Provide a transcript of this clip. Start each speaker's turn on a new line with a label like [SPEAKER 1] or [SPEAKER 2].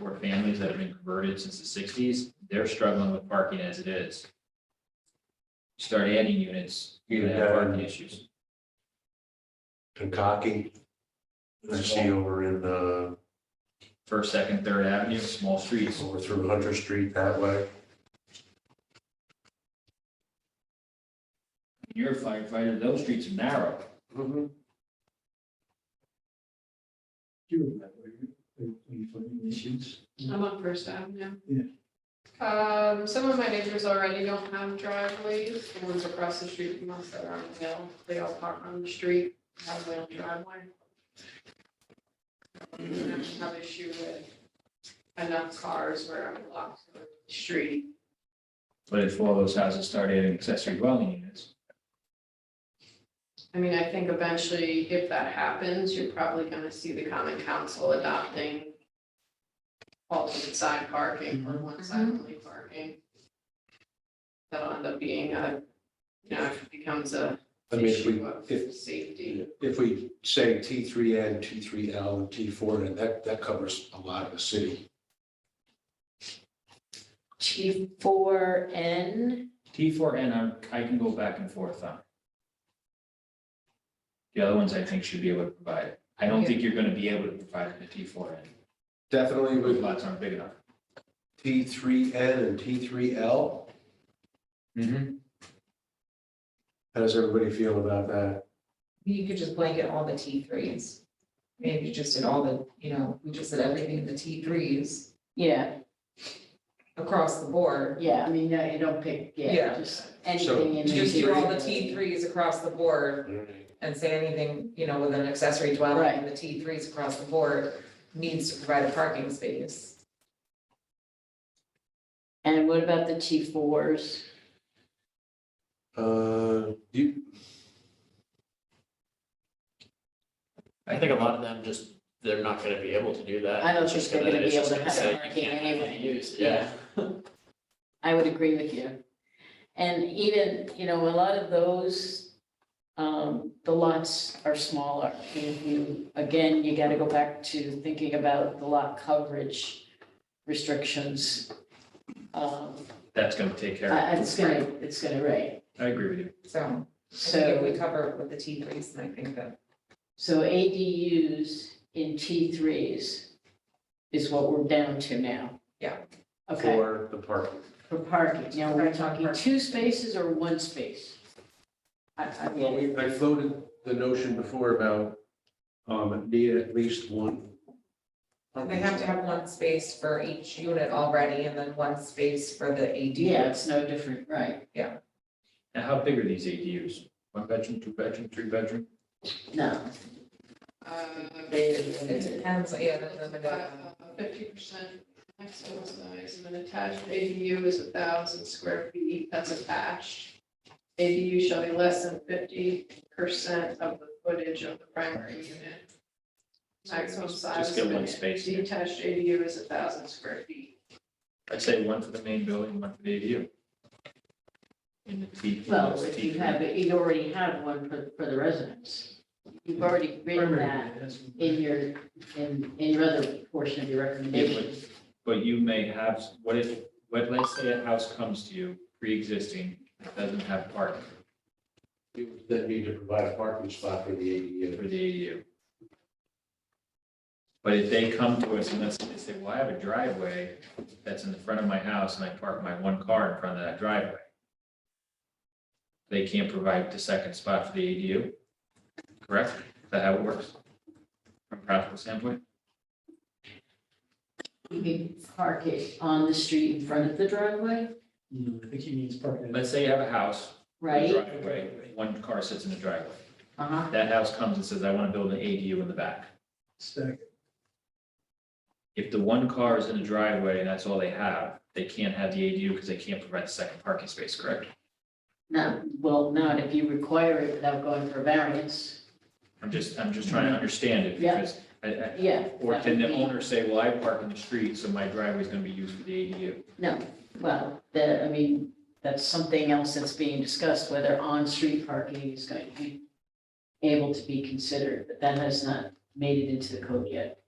[SPEAKER 1] or families that have been converted since the sixties, they're struggling with parking as it is. Start adding units, you're gonna have parking issues.
[SPEAKER 2] Pankaki. I see over in, uh,
[SPEAKER 1] First, second, third avenue, small streets,
[SPEAKER 2] over through Hunter Street that way.
[SPEAKER 1] you're a firefighter, those streets are narrow.
[SPEAKER 2] Mm-hmm.
[SPEAKER 3] do that, way, you, you find issues.
[SPEAKER 4] I'm on First Avenue.
[SPEAKER 3] Yeah.
[SPEAKER 4] Um, some of my neighbors already don't have driveways, the ones across the street from us that are on the hill, they all park on the street, have their own driveway. Um, I don't have issue with enough cars where I'm blocked from the street.
[SPEAKER 1] But if all those houses start adding accessory dwelling units,
[SPEAKER 4] I mean, I think eventually, if that happens, you're probably gonna see the common council adopting alternate side parking
[SPEAKER 5] Mm-hmm.
[SPEAKER 4] or one side only parking. That'll end up being a, you know, if it becomes a
[SPEAKER 2] I mean, if we,
[SPEAKER 4] issue of
[SPEAKER 2] if-
[SPEAKER 4] safety.
[SPEAKER 2] if we say T three N, T three L, and T four N, that, that covers a lot of the city.
[SPEAKER 5] T four N,
[SPEAKER 1] T four N, I'm, I can go back and forth on. The other ones I think should be able to provide it. I don't think you're gonna be able to provide it in a T four N.
[SPEAKER 2] Definitely
[SPEAKER 1] Those
[SPEAKER 2] with
[SPEAKER 1] lots aren't big enough.
[SPEAKER 2] T three N and T three L. How does everybody feel about that?
[SPEAKER 6] You could just blanket all the T threes. Maybe just did all the, you know, we just did everything in the T threes
[SPEAKER 5] yeah,
[SPEAKER 6] across the board.
[SPEAKER 5] yeah,
[SPEAKER 7] I mean, no, you don't pick, yeah,
[SPEAKER 6] Yeah.
[SPEAKER 7] just
[SPEAKER 5] anything in.
[SPEAKER 6] Just do all the
[SPEAKER 5] T
[SPEAKER 6] T threes across the board
[SPEAKER 2] Mm-hmm.
[SPEAKER 6] and say anything, you know, with an accessory dwelling,
[SPEAKER 5] Right.
[SPEAKER 6] the T threes across the board needs to provide a parking space.
[SPEAKER 5] And what about the T fours?
[SPEAKER 2] Uh, you,
[SPEAKER 8] I think a lot of them just, they're not gonna be able to do that.
[SPEAKER 5] I don't
[SPEAKER 8] It's just
[SPEAKER 5] think they're gonna
[SPEAKER 8] it's
[SPEAKER 5] be
[SPEAKER 8] just
[SPEAKER 5] able to
[SPEAKER 8] gonna
[SPEAKER 5] have
[SPEAKER 8] say,
[SPEAKER 5] it
[SPEAKER 8] "You can't
[SPEAKER 5] anyway."
[SPEAKER 8] have it used." Yeah,
[SPEAKER 5] I would agree with you. And even, you know, a lot of those, um, the lots are smaller. If you, again, you gotta go back to thinking about the lot coverage restrictions. Um,
[SPEAKER 1] That's gonna take care of
[SPEAKER 5] I- it's gonna, it's gonna, right,
[SPEAKER 1] it. I agree with you.
[SPEAKER 6] So I think if we
[SPEAKER 5] so,
[SPEAKER 6] cover it with the T threes, then I think that
[SPEAKER 5] so ADUs in T threes is what we're down to now.
[SPEAKER 6] Yeah.
[SPEAKER 5] Okay.
[SPEAKER 2] for the parking.
[SPEAKER 5] For parking, now we're
[SPEAKER 6] Right,
[SPEAKER 5] talking
[SPEAKER 6] parking.
[SPEAKER 5] two spaces or one space? I, I
[SPEAKER 2] Well,
[SPEAKER 5] mean,
[SPEAKER 2] we, I floated the notion before about, um, need at least one.
[SPEAKER 6] they have to have one space for each unit already and then one space for the ADUs.
[SPEAKER 5] yeah, it's no different, right?
[SPEAKER 1] Now, how big are these ADUs? One bedroom, two bedroom, three bedroom?
[SPEAKER 5] No.
[SPEAKER 4] Uh,
[SPEAKER 6] It depends, yeah, the, the, the.
[SPEAKER 4] Fifty percent maximum size, and an attached ADU is a thousand square feet, that's attached. ADU shall be less than fifty percent of the footage of the primary unit. Maximum size.
[SPEAKER 1] Just get
[SPEAKER 4] of
[SPEAKER 1] one
[SPEAKER 4] an
[SPEAKER 1] space.
[SPEAKER 4] Detached ADU is a thousand square feet.
[SPEAKER 1] I'd say one for the main building, one for the ADU. In the T. in
[SPEAKER 5] Well,
[SPEAKER 1] those
[SPEAKER 5] if
[SPEAKER 1] T
[SPEAKER 5] you have, you already have one for, for the residents. You've already written that in your, in, in your other portion of your recommendation.
[SPEAKER 1] But you may have, what if, what, let's say a house comes to you, pre-existing, doesn't have parking
[SPEAKER 2] You would Then need to provide a parking spot for the ADU.
[SPEAKER 1] for the ADU. But if they come to us and let's say, they say, well, I have a driveway that's in the front of my house and I park my one car in front of that driveway. They can't provide the second spot for the ADU, correct? Is that how it works? From a practical standpoint?
[SPEAKER 5] You can park it on the street in front of the driveway,
[SPEAKER 3] No, I think he needs parking.
[SPEAKER 1] Let's say you have a house, a
[SPEAKER 5] right?
[SPEAKER 1] driveway, one car sits in the driveway.
[SPEAKER 5] Uh-huh,
[SPEAKER 1] That house comes and says, I want to build an ADU in the back.
[SPEAKER 3] Stack.
[SPEAKER 1] If the one car is in the driveway and that's all they have, they can't have the ADU because they can't provide the second parking space, correct?
[SPEAKER 5] not, well, not if you require it without going for variance,
[SPEAKER 1] I'm just, I'm just trying to understand it
[SPEAKER 5] Yeah.
[SPEAKER 1] because I, I,
[SPEAKER 5] yeah.
[SPEAKER 1] or
[SPEAKER 5] that
[SPEAKER 1] can
[SPEAKER 5] would
[SPEAKER 1] the
[SPEAKER 5] be-
[SPEAKER 1] owner say, well, I park in the street, so my driveway is going to be used for the ADU?
[SPEAKER 5] No, well, the, I mean, that's something else that's being discussed, whether on-street parking is going to be able to be considered, but that has not made it into the code yet.